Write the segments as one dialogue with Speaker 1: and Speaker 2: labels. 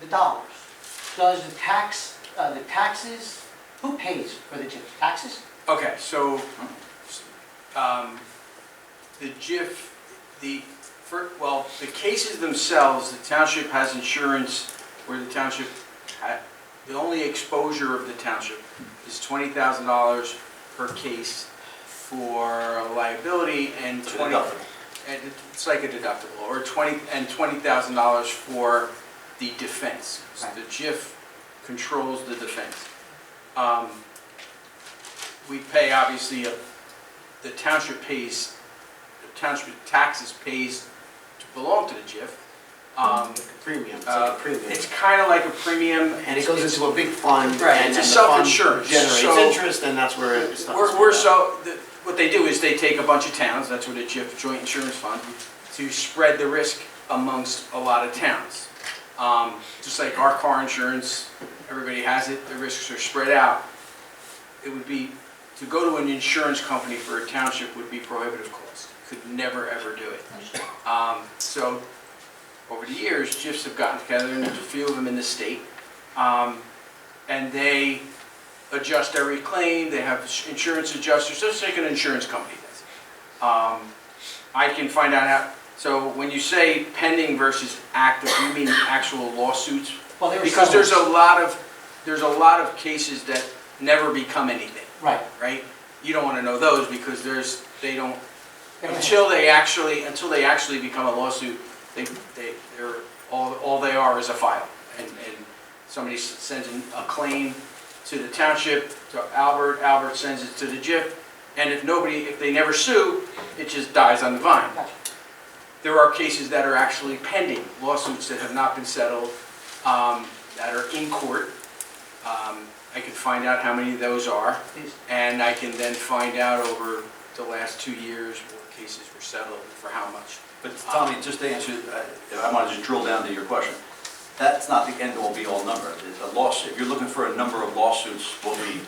Speaker 1: the dollars? Does the tax, uh, the taxes, who pays for the JIF? Taxes?
Speaker 2: Okay, so, um, the JIF, the, fir- well, the cases themselves, the township has insurance where the township, ha- the only exposure of the township is twenty thousand dollars per case for liability and twenty. and It's like a deductible, or twenty, and twenty thousand dollars for the defense. So the JIF controls the defense. Um, we pay, obviously, a- the township pays, the township taxes pays to belong to the JIF. Um,
Speaker 3: Premium, it's
Speaker 2: uh,
Speaker 3: like a premium.
Speaker 2: It's kind of like a premium.
Speaker 3: And it goes into a big fund.
Speaker 2: Right,
Speaker 3: and-
Speaker 2: it's a
Speaker 3: and the fund
Speaker 2: self-insurance, so-
Speaker 3: Generates interest, and that's where it stops.
Speaker 2: We're, we're so, the- what they do is they take a bunch of towns, that's what a JIF, joint insurance fund, to spread the risk amongst a lot of towns. Um, Just like our car insurance, everybody has it, the risks are spread out. It would be, to go to an insurance company for a township would be prohibitive cost. Could never, ever do it. Um, So, over the years, JIFs have gotten together, and there's a few of them in the state. Um, And they adjust every claim, they have insurance adjusters, just like an insurance company does. Um, I can find out how, so when you say pending versus active, you mean actual lawsuits?
Speaker 1: Well, there were
Speaker 2: Because there's a
Speaker 1: several.
Speaker 2: lot of, there's a lot of cases that never become anything,
Speaker 1: Right.
Speaker 2: right? You don't want to know those because there's, they don't,
Speaker 1: There were-
Speaker 2: until they actually, until they actually become a lawsuit, they, they, they're, all, all they are is a file. And, and somebody s- sends in a claim to the township, to Albert, Albert sends it to the JIF, and if nobody, if they never sue, it just dies on the vine.
Speaker 1: Gotcha.
Speaker 2: There are cases that are actually pending, lawsuits that have not been settled, um, that are in court. Um, I can find out how many of those are.
Speaker 1: Please.
Speaker 2: And I can then find out over the last two years what cases were settled and for how much.
Speaker 4: But Tommy, just to answer, uh, I- I want to just drill down to your question. That's not the end-all, be-all number. The lawsuit, if you're looking for a number of lawsuits, what we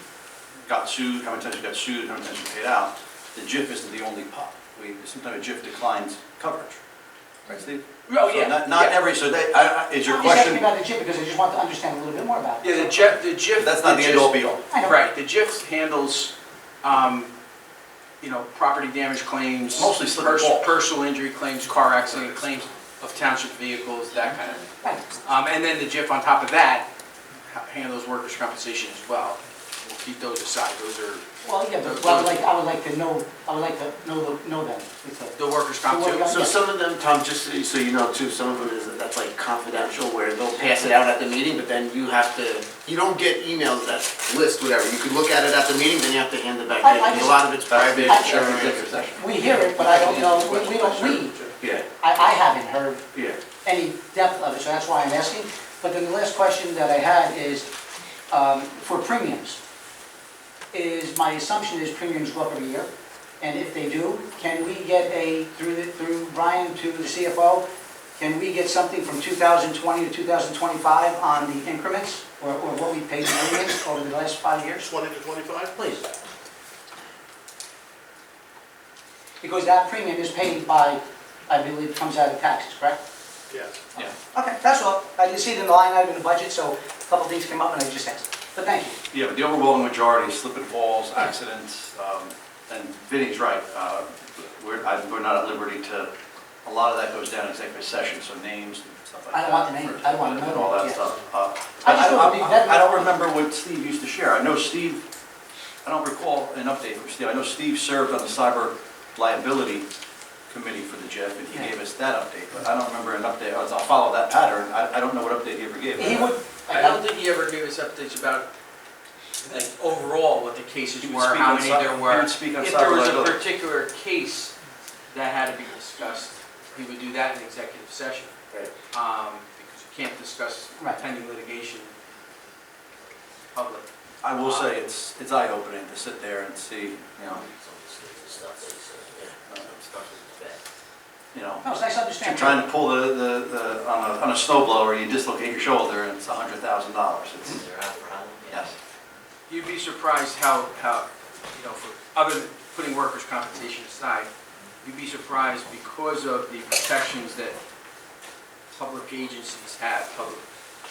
Speaker 4: got sued, how many times we got sued, how many times we paid out, the JIF isn't the only pot. We, sometimes a JIF declines coverage. Right, Steve?
Speaker 2: Oh,
Speaker 4: So not- Not every, so that, I- I- is your question,
Speaker 1: Just asking about the JIF because I just want to understand a little bit more about it.
Speaker 2: Yeah, the JIF, the JIF.
Speaker 4: that's not the end-all, be-all.
Speaker 1: I know.
Speaker 2: Right, the JIF handles, um, you know, property damage claims.
Speaker 4: Mostly slip and
Speaker 2: pers-
Speaker 4: fall.
Speaker 2: Personal injury claims, car accident claims of township vehicles, that kind of thing.
Speaker 1: Right.
Speaker 2: Um, and then the JIF on top of that ha- handles workers' compensation as well. We'll keep those aside, those are
Speaker 1: Well, yeah, but well, I would like, I would like to know, I would like to know, the- know them. It's a-
Speaker 2: the workers' comp
Speaker 1: So what
Speaker 2: too.
Speaker 1: about-
Speaker 3: So some of them, Tom, just so you- so you know too, some of them is, that's like confidential, where they'll pass it out at the meeting, but then you have to, you don't get emails that list, whatever. You could look at it at the meeting, then you have to hand it back
Speaker 1: I- I
Speaker 3: in. A
Speaker 1: just-
Speaker 3: lot of it's private,
Speaker 1: I-
Speaker 3: insurance.
Speaker 1: We hear it, but I don't know, we- we don't, we,
Speaker 4: Yeah,
Speaker 1: I, I haven't heard
Speaker 4: yeah.
Speaker 1: any depth of it, so that's why I'm asking. But then the last question that I had is, um, for premiums, is, my assumption is premiums go up every year, and if they do, can we get a, through, the- through Brian to the CFO, can we get something from 2020 to 2025 on the increments, or, or what we paid premiums over the last five years?
Speaker 5: 20 to 25?
Speaker 1: Please. Because that premium is paid by, I believe, comes out of taxes, correct?
Speaker 5: Yes.
Speaker 4: Yeah.
Speaker 1: Okay, that's all. I didn't see it in the line item in the budget, so a couple things came up and I just asked. But thank you.
Speaker 4: Yeah, but the overwhelming majority is slip and falls, accidents, um, and Vinnie's right. uh, We're, I- we're not at liberty to, a lot of that goes down in executive session, so names and stuff like that.
Speaker 1: I don't want the name. I don't want to know
Speaker 4: and All
Speaker 1: that,
Speaker 4: that
Speaker 1: yes.
Speaker 4: stuff. Uh,
Speaker 1: I just want to be vetted.
Speaker 4: I I don't remember what Steve used to share. I know Steve, I don't recall an update from Steve. I know Steve served on the cyber liability committee for the JEF, and he
Speaker 1: Yeah.
Speaker 4: gave us that update, but I don't remember an update. I'll I'll follow that pattern. I, I don't know what update he ever gave.
Speaker 1: He would,
Speaker 2: I don't think he ever gave us updates about, like, overall what the cases
Speaker 4: He would
Speaker 2: were,
Speaker 4: speak
Speaker 2: how
Speaker 4: on
Speaker 2: many
Speaker 4: cy-
Speaker 2: there
Speaker 4: he
Speaker 2: were.
Speaker 4: would speak on
Speaker 2: If there was a
Speaker 4: cyber-liability.
Speaker 2: particular case that had to be discussed, he would do that in executive session.
Speaker 4: Right.
Speaker 2: Um, because you can't discuss
Speaker 1: Right.
Speaker 2: pending litigation public.
Speaker 4: I will say, it's, it's eye-opening to sit there and see, you know, uh, you know,
Speaker 1: no, it's nice to understand.
Speaker 4: you're trying to pull the, the, the on a, on a snow blower, you dislocate your shoulder, and it's a hundred thousand dollars. It's,
Speaker 3: Mm-hmm.
Speaker 4: yes.
Speaker 2: You'd be surprised how, how, you know, for, other than putting workers' compensation aside, you'd be surprised because of the protections that public agencies have, public